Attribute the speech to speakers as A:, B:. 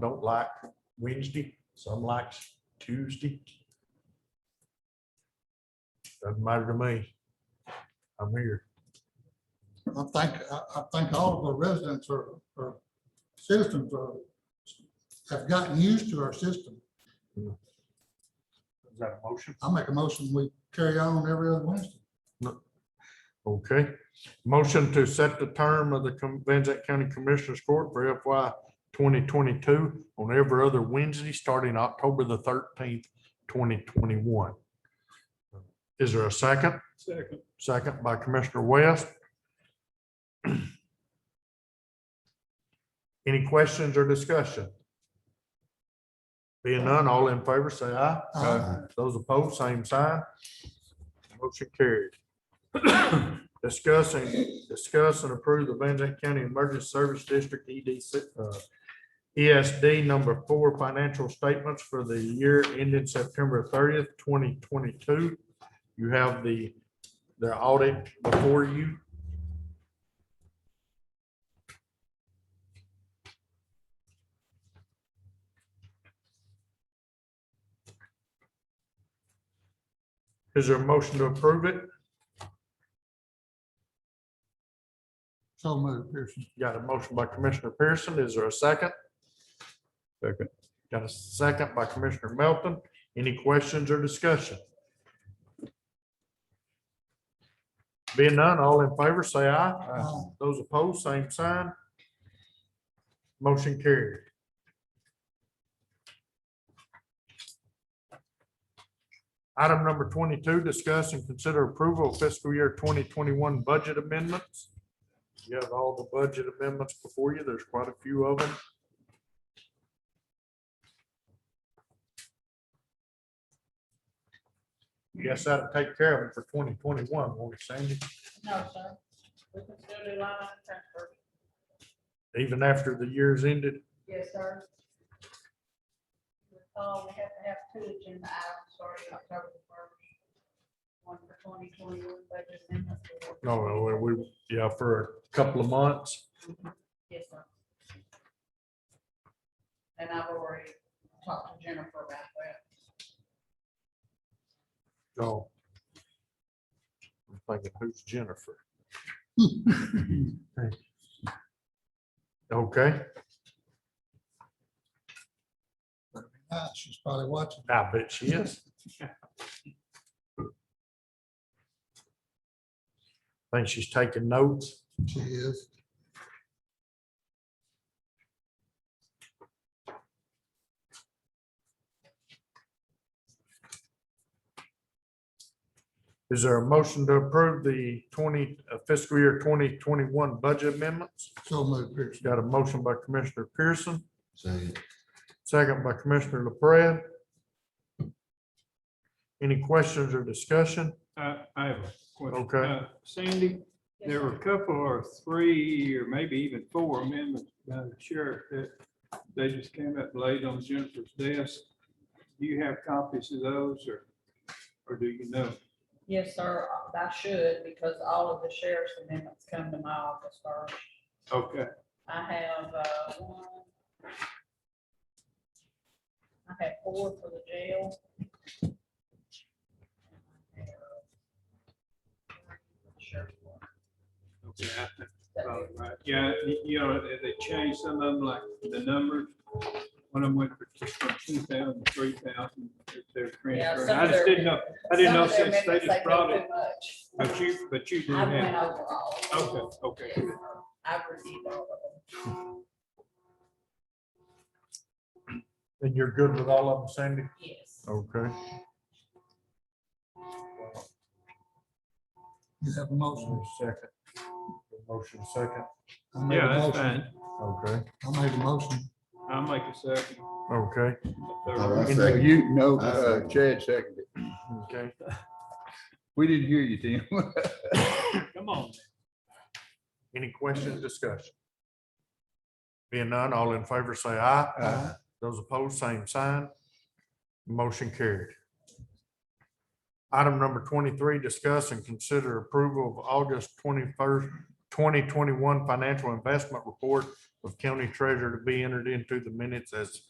A: don't like Wednesday, some likes Tuesday. Doesn't matter to me. I'm here.
B: I think, I, I think all of our residents or, or citizens are, have gotten used to our system.
A: Is that a motion?
B: I make a motion, we carry on every other Wednesday.
A: Okay. Motion to set the term of the Com- Van Zant County Commissioners Court for FY twenty twenty-two on every other Wednesday, starting October the thirteenth, twenty twenty-one. Is there a second? Second. Second by Commissioner West. Any questions or discussion? Being none, all in favor, say aye.
B: Aye.
A: Those opposed, same sign. Motion carried. Discussing, discuss and approve the Van Zandt County Emergency Service District EDC, uh, ESD number four financial statements for the year ending September thirtieth, twenty twenty-two. You have the, the audit before you. Is there a motion to approve it?
B: So moved, Pearson.
A: Got a motion by Commissioner Pearson. Is there a second? Second. Got a second by Commissioner Melton. Any questions or discussion? Being none, all in favor, say aye.
B: Aye.
A: Those opposed, same sign. Motion carried. Item number twenty-two, discuss and consider approval of fiscal year twenty twenty-one budget amendments. You have all the budget amendments before you. There's quite a few of them. Yes, that'll take care of it for twenty twenty-one, won't it, Sandy?
C: No, sir. We can still do line item transfer.
A: Even after the year's ended?
C: Yes, sir. Recall, we have to have two agenda items, sorry, October the first. One for twenty twenty-one budget amendment. for-
A: No, no, we- we, yeah, for a couple of months.
C: Yes, sir. And I've already talked to Jennifer about that.
A: No. I'm thinking, who's Jennifer? Okay,
B: Ah, She's probably watching.
A: I bet she is. Think she's taking notes.
B: She is.
A: Is there a motion to approve the twenty uh, fiscal year twenty twenty-one budget amendments?
B: So moved, Pearson.
A: Got a motion by Commissioner Pearson,
D: Second.
A: second by Commissioner LaPrada. Any questions or discussion?
E: I, Uh, I have a question.
A: Okay.
E: Uh, Sandy,
C: Yes,
E: there were
C: sir.
E: a couple or three, or maybe even four amendments by the sheriff that they just came up late on Jennifer's desk. Do you have copies of those, or, or do you know?
C: Yes, sir, I should, because all of the sheriff's amendments come to my office first.
E: Okay,
C: I have, uh, one. I have four for the jail. Sure.
E: okay, I think
C: That
E: about
C: is-
E: right. Yeah, you- you know, they- they changed some of them, like the numbers. One of them went for just from two thousand, three thousand, they're
C: Yeah,
E: transferring.
C: some
E: I
C: of their-
E: just didn't know, I didn't
C: some
E: know
C: of their
E: since they
C: amendments,
E: just
C: go
E: brought
C: too
E: it,
C: much.
E: but you, but you
C: I
E: didn't
C: went
E: have.
C: over all. of them.
E: Okay, okay.
C: Yeah, I've received all of them.
A: And you're good with all of them, Sandy?
C: Yes.
A: Okay.
B: You have a motion.
A: Second. Motion second.
B: I made a
E: Yeah, that's
B: motion.
E: fine.
A: Okay.
B: I made a motion.
E: I'll make a second.
A: Okay,
E: a
D: All
E: third.
D: right.
F: And
D: Second.
F: you, no,
D: I
F: uh,
D: second.
F: Chad seconded. it.
A: okay.
F: We didn't hear you, Tim.
E: Come on.
A: Any questions, discussion? Being none, all in favor say aye.
F: Aye.
A: Those opposed, same sign. Motion carried. Item number twenty-three, discuss and consider approval of August twenty-first, twenty twenty-one financial investment report of county treasurer to be entered into the minutes as